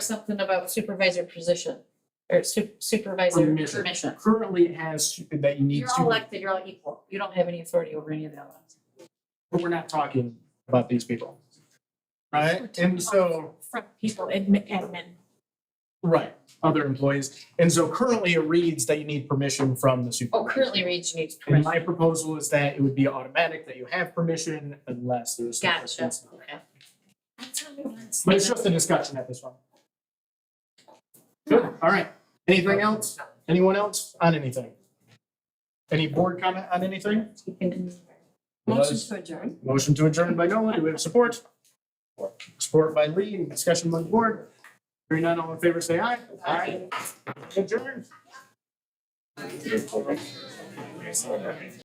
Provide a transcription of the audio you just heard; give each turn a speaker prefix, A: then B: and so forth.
A: something about supervisor position or su- supervisor
B: Permission.
A: permission.
B: Currently it has to- that you need
A: You're all
B: to,
A: elected, you're all equal. You don't have any authority over any of the other ones.
B: but we're not talking about these people. Right? And so,
A: From people, admin, admin.
B: right, other employees. And so currently it reads that you need permission from the
A: Oh,
B: supervisor.
A: currently reads needs
B: And
A: permission.
B: my proposal is that it would be automatic that you have permission unless there's. some
A: Gotcha,
B: person's-
A: okay.
B: But it's just a discussion at this one. Good, all right. Anything else? Anyone else on anything? Any board comment on anything?
C: Motion to adjourn.
B: Motion to adjourn by Nolan, do we have support? Support by Lee, Any discussion by the board. Hearing none, all in favor, say aye. Aye. Adjourn.